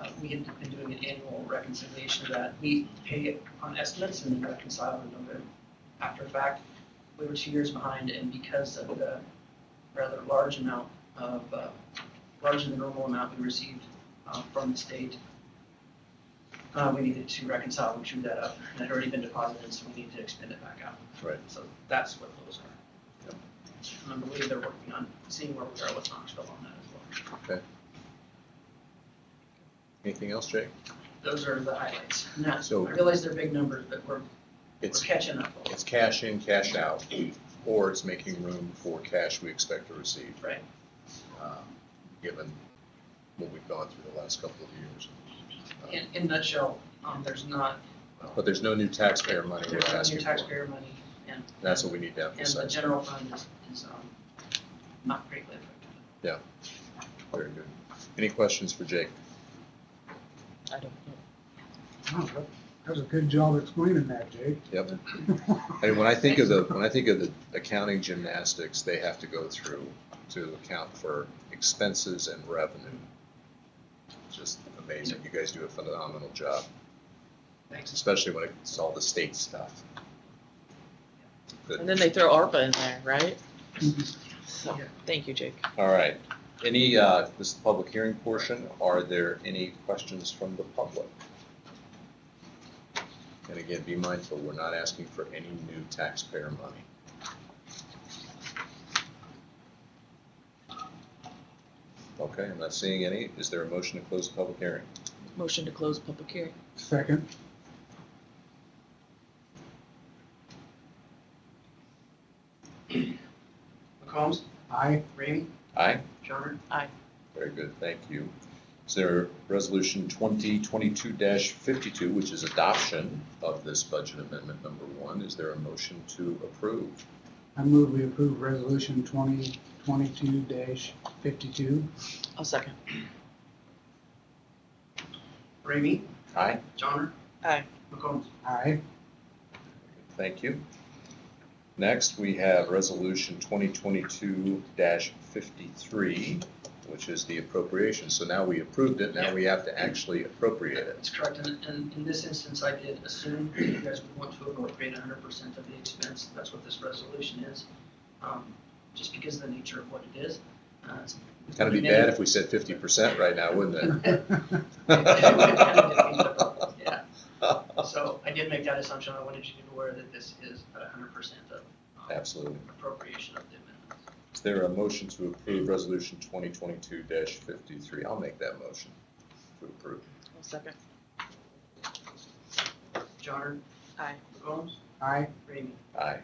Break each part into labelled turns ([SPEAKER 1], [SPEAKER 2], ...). [SPEAKER 1] Uh, we had been doing an annual reconciliation of that. We pay it on estimates and then reconcile with them after fact. We were two years behind and because of the rather large amount of, uh, larger than normal amount we received uh, from the state, uh, we needed to reconcile, we drew that up. It had already been deposited, so we need to expend it back out.
[SPEAKER 2] Right.
[SPEAKER 1] So that's what those are. And I believe they're working on seeing where we are with Knoxville on that as well.
[SPEAKER 2] Anything else, Jake?
[SPEAKER 1] Those are the highlights. And that's- I
[SPEAKER 2] So-
[SPEAKER 1] realize they're big numbers, but we're, we're
[SPEAKER 2] It's,
[SPEAKER 1] catching up. a
[SPEAKER 2] it's
[SPEAKER 1] lot.
[SPEAKER 2] cash in, cash out, or it's making room for cash we expect to receive.
[SPEAKER 1] Right.
[SPEAKER 2] um, Given what we've gone through the last couple of years.
[SPEAKER 1] In, in nutshell, um, there's not,
[SPEAKER 2] But there's no new taxpayer money we're
[SPEAKER 1] there's no
[SPEAKER 2] asking
[SPEAKER 1] new
[SPEAKER 2] for.
[SPEAKER 1] taxpayer money and.
[SPEAKER 2] That's what we need to
[SPEAKER 1] And the
[SPEAKER 2] emphasize.
[SPEAKER 1] general fund is, is, um, not greatly affected.
[SPEAKER 2] Very good. Any questions for Jake?
[SPEAKER 3] I don't know.
[SPEAKER 4] Wow, that- That was a good job explaining that, Jake.
[SPEAKER 2] Yep. I mean, when I think of the, when I think of the accounting gymnastics they have to go through to account for expenses and revenue. Just amazing. You guys do a phenomenal job,
[SPEAKER 1] Thanks.
[SPEAKER 2] especially when it's all the state stuff.
[SPEAKER 3] And
[SPEAKER 2] Good.
[SPEAKER 3] then they throw ARPA in there, right? So,
[SPEAKER 1] Yeah.
[SPEAKER 3] thank you, Jake.
[SPEAKER 2] All right. Any, uh, this is the public hearing portion. Are there any questions from the public? And again, be mindful, we're not asking for any new taxpayer money. Okay, I'm not seeing any. Is there a motion to close the public hearing?
[SPEAKER 3] Motion to close public hearing.
[SPEAKER 4] Second,
[SPEAKER 1] McCombs,
[SPEAKER 4] aye.
[SPEAKER 1] Ramey,
[SPEAKER 2] Aye?
[SPEAKER 1] Johnner,
[SPEAKER 2] Very good, thank you. Is there Resolution 2022-52, which is adoption of this budget amendment number one? Is there a motion to approve?
[SPEAKER 4] I move we approve resolution twenty twenty-two fifty-two.
[SPEAKER 3] I'll second.
[SPEAKER 1] Ramey,
[SPEAKER 2] Aye?
[SPEAKER 1] Johnner.
[SPEAKER 3] Aye.
[SPEAKER 1] McCombs,
[SPEAKER 4] Aye.
[SPEAKER 2] Thank you. Next, we have Resolution 2022-53, which is the appropriation. So now we approved it, now we have to actually appropriate it.
[SPEAKER 1] That's correct, and, and in this instance, I did assume that you guys would want to appropriate hundred percent of the expense, that's what this resolution is. Um, Just because of the nature of what it is. uh, it's-
[SPEAKER 2] Kind of be bad if we said 50% right now, wouldn't it?
[SPEAKER 1] Yeah, so I did make that assumption, I wanted you to be aware that this is hundred percent of um,
[SPEAKER 2] Absolutely.
[SPEAKER 1] appropriation of the amendments.
[SPEAKER 2] Is there a motion to approve Resolution 2022-53? I'll make that motion to approve.
[SPEAKER 3] I'll second.
[SPEAKER 1] Johnner?
[SPEAKER 3] Aye.
[SPEAKER 1] McCombs?
[SPEAKER 4] Aye.
[SPEAKER 1] Ramey?
[SPEAKER 2] Aye.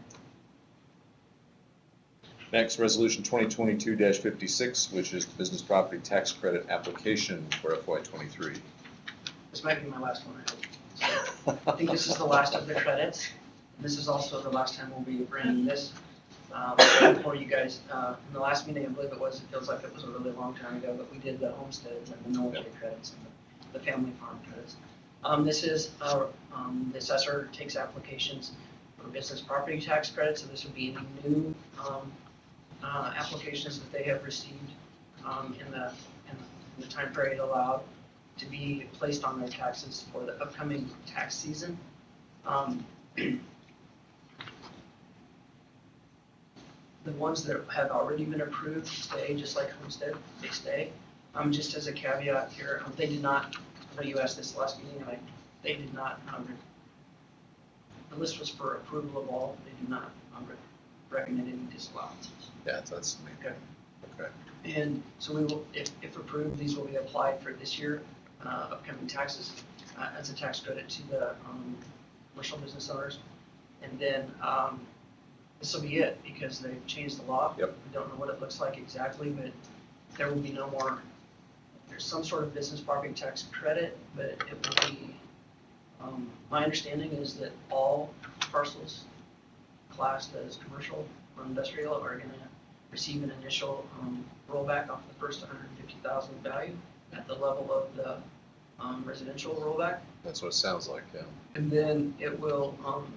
[SPEAKER 2] Next, Resolution 2022-56, which is the Business Property Tax Credit Application for FY23.
[SPEAKER 1] This might be my last one, I hope. I think this is the last of the credits. And This is also the last time we'll be bringing this um, for you guys. Uh, In the last meeting, I believe it was, it feels like it was a really long time ago, but we did the homesteads and the military credits and the the family farm credits. Um, This is, uh, um, the assessor takes applications for business property tax credits, so this would be any new um, uh, applications that they have received um, in the, in the time period allowed to be placed on their taxes for the upcoming tax season. Um, The ones that have already been approved stay, just like Homestead, they stay. Um, Just as a caveat here, um, they did not, I know you asked this last meeting, and I, they did not, um, re- the list was for approval of all, they did not um, re- recommend any disallowances.
[SPEAKER 2] Yeah, that's me.
[SPEAKER 1] Okay.
[SPEAKER 2] Okay.
[SPEAKER 1] And so we will, if, if approved, these will be applied for this year, uh, upcoming taxes, uh, as a tax credit to the, um, commercial business owners. And then, um, this will be it, because they've changed the law.
[SPEAKER 2] Yep.
[SPEAKER 1] We don't know what it looks like exactly, but there will be no more, there's some sort of business property tax credit, but it will be, um, my understanding is that all parcels classed as commercial or industrial are gonna receive an initial um, rollback off the first 150,000 value at the level of the um, residential rollback.
[SPEAKER 2] That's what it sounds like, yeah.
[SPEAKER 1] And then it will um,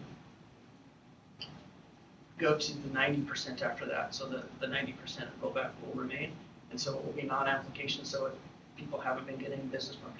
[SPEAKER 1] go to the 90% after that. So the, the 90% rollback will remain. And so it will be non-application. So if people haven't been getting business property